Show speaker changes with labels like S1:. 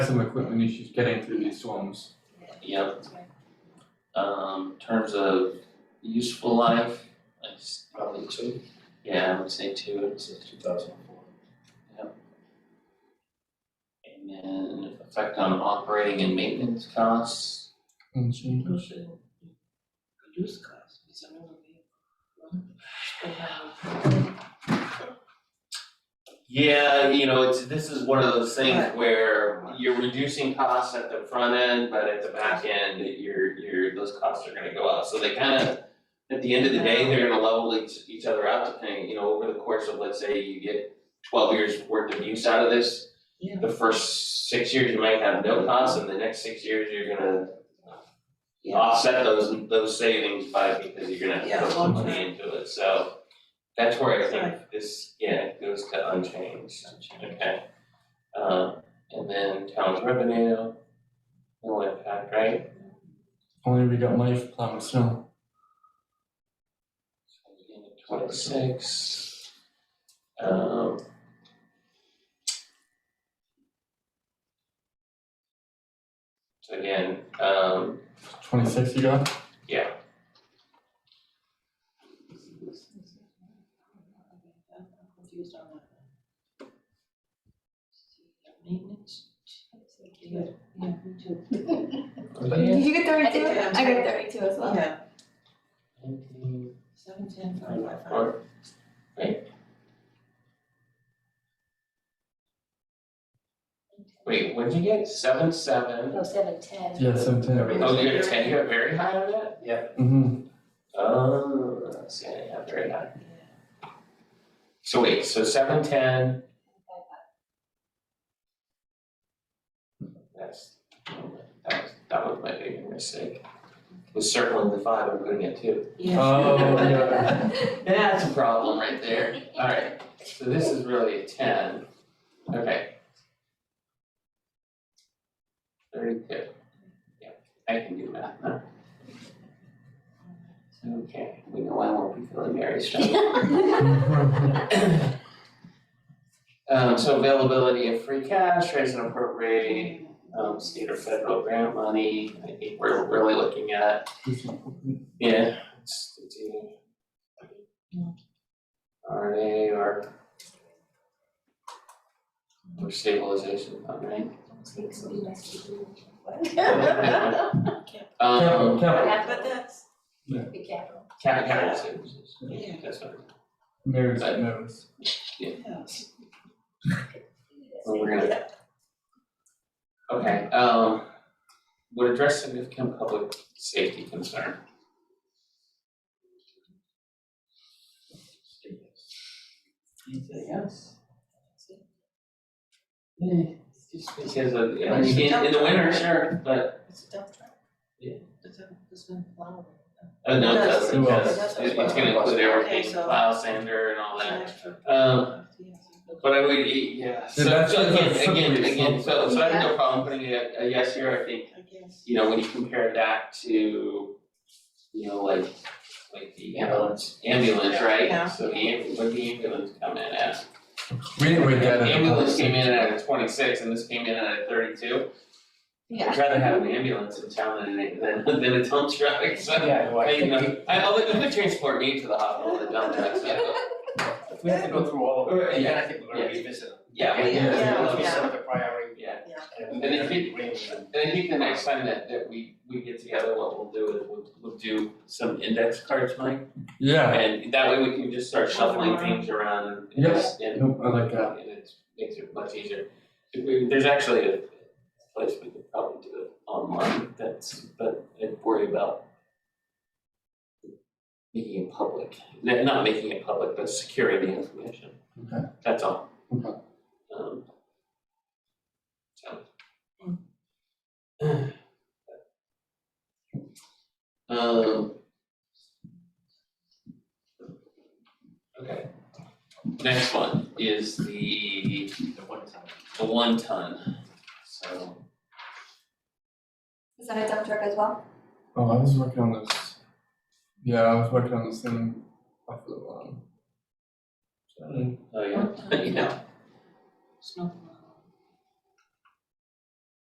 S1: had some equipment issues getting through these storms.
S2: Yep. Um, in terms of useful life, I s-
S3: Probably two,
S2: yeah, I would say two,
S3: this is two thousand and four.
S2: and then effect on operating and maintenance costs. Reduce costs, is another Yeah, you know, it's, this is one of those things where you're reducing costs at the front end, but at the back end, you're, you're, those costs are gonna go up, so they kind of. At the end of the day, they're gonna level each, each other out depending, you know, over the course of, let's say, you get twelve years worth of use out of this.
S4: Yeah.
S2: The first six years, you might have no costs, and the next six years, you're gonna.
S4: Yeah.
S2: Offset those, those savings by, because you're gonna have
S4: Yeah,
S2: to put some
S4: long
S2: money
S4: term.
S2: into it, so. That's where I think
S4: Right.
S2: this, yeah, it goes to unchanged. Okay. Um, and then town revenue, no impact, right?
S1: Only we got life plowing snow.
S2: So again, Twenty-six. Um. So again, um,
S1: Twenty-six you got?
S4: I'm confused on that. Maintenance? Yeah, yeah, me too.
S5: Did you get
S4: I
S5: thirty-two?
S4: did too.
S5: I got thirty-two as well.
S4: Yeah,
S2: nineteen,
S4: seven, ten, five,
S2: nine,
S4: five, five.
S2: four, right? Wait, what'd you get? Seven, seven?
S6: No, seven ten.
S1: Yeah, seventeen.
S2: Oh, you're ten, you're very high on that?
S1: Mm-hmm.
S2: Oh, let's see, I didn't have very high. So wait, so seven ten, that's, that was, that was my big mistake. Was circling the five, I'm putting it two.
S4: Yeah.
S1: Oh, yeah.
S2: That's a problem right there. Alright, so this is really a ten. Okay. Thirty-two. Yeah, I can do math now. Okay, we know I won't be feeling very strong. Um, so availability of free cash, raise and appropriate, um, state or federal grant money, I think we're really looking at, yeah, it's, it's either RNA or or stabilization fund, right?
S6: Takes me back to
S1: Capital, capital.
S2: Um,
S6: Yeah.
S4: But that's,
S6: the capital.
S2: cap, capital savings, yeah, that's what,
S1: Mary's nose.
S4: yeah.
S2: what we're gonna. Okay, um, would address significant public safety concern. Yes. Yeah, just because of, I mean, in, in the winter, sure, but,
S4: It's a dump truck.
S2: Yeah.
S4: It's a, it's a flower.
S2: oh, no, it doesn't,
S1: It does.
S2: because it- it's gonna include
S4: Okay,
S2: everything,
S4: so-
S2: plow, sander and all
S4: It's an
S2: that.
S4: extra.
S2: Um, but I would, yeah, so,
S1: that's-
S2: so
S1: that's a
S2: again, again,
S1: slippery
S2: again, so,
S1: slope.
S2: so I have no problem putting a, a yes here, I think,
S4: I guess.
S2: you know, when you compare that to, you know, like, like the ambulance, ambulance, right?
S4: Yeah.
S2: So the ambulance, what the ambulance come in at?
S1: We didn't wait that.
S2: The ambulance came in at a twenty-six and this came in at a thirty-two.
S5: Yeah.
S2: I'd rather have an ambulance in town than, a- than, than a dump truck, so,
S3: Yeah, well,
S2: I,
S3: I
S2: you
S3: think
S2: know, I, I'll, let- let transport me to the hospital, the dump truck, so,
S3: if we have to go through all of
S2: Uh,
S3: it, and
S2: yeah.
S3: then I think we're gonna revisit them.
S2: yeah, I mean,
S1: Yeah,
S3: Let's
S4: yeah.
S3: revisit the priority.
S2: yeah.
S3: And
S2: And if it-
S3: range and-
S2: And I think the next time that, that we, we get together, what we'll do is we'll, we'll do some index cards, Mike.
S1: Yeah.
S2: And that way we can just start shuffling things around and
S1: Yes.
S2: it's, and
S1: Nope, I like that.
S2: and it makes it much easier. If we- There's actually a place we could probably do it online that's, but I worry about making it public, N- not making it public, but securing the information.
S1: Okay.
S2: That's all.
S1: Okay.
S2: Um. So. Um. Okay. Next one is the the one ton, so.
S5: Is that a dump truck as well?
S1: Oh, I was working on this. Yeah, I was working on this thing off the um.
S2: Oh, yeah. Yeah,
S4: Snow.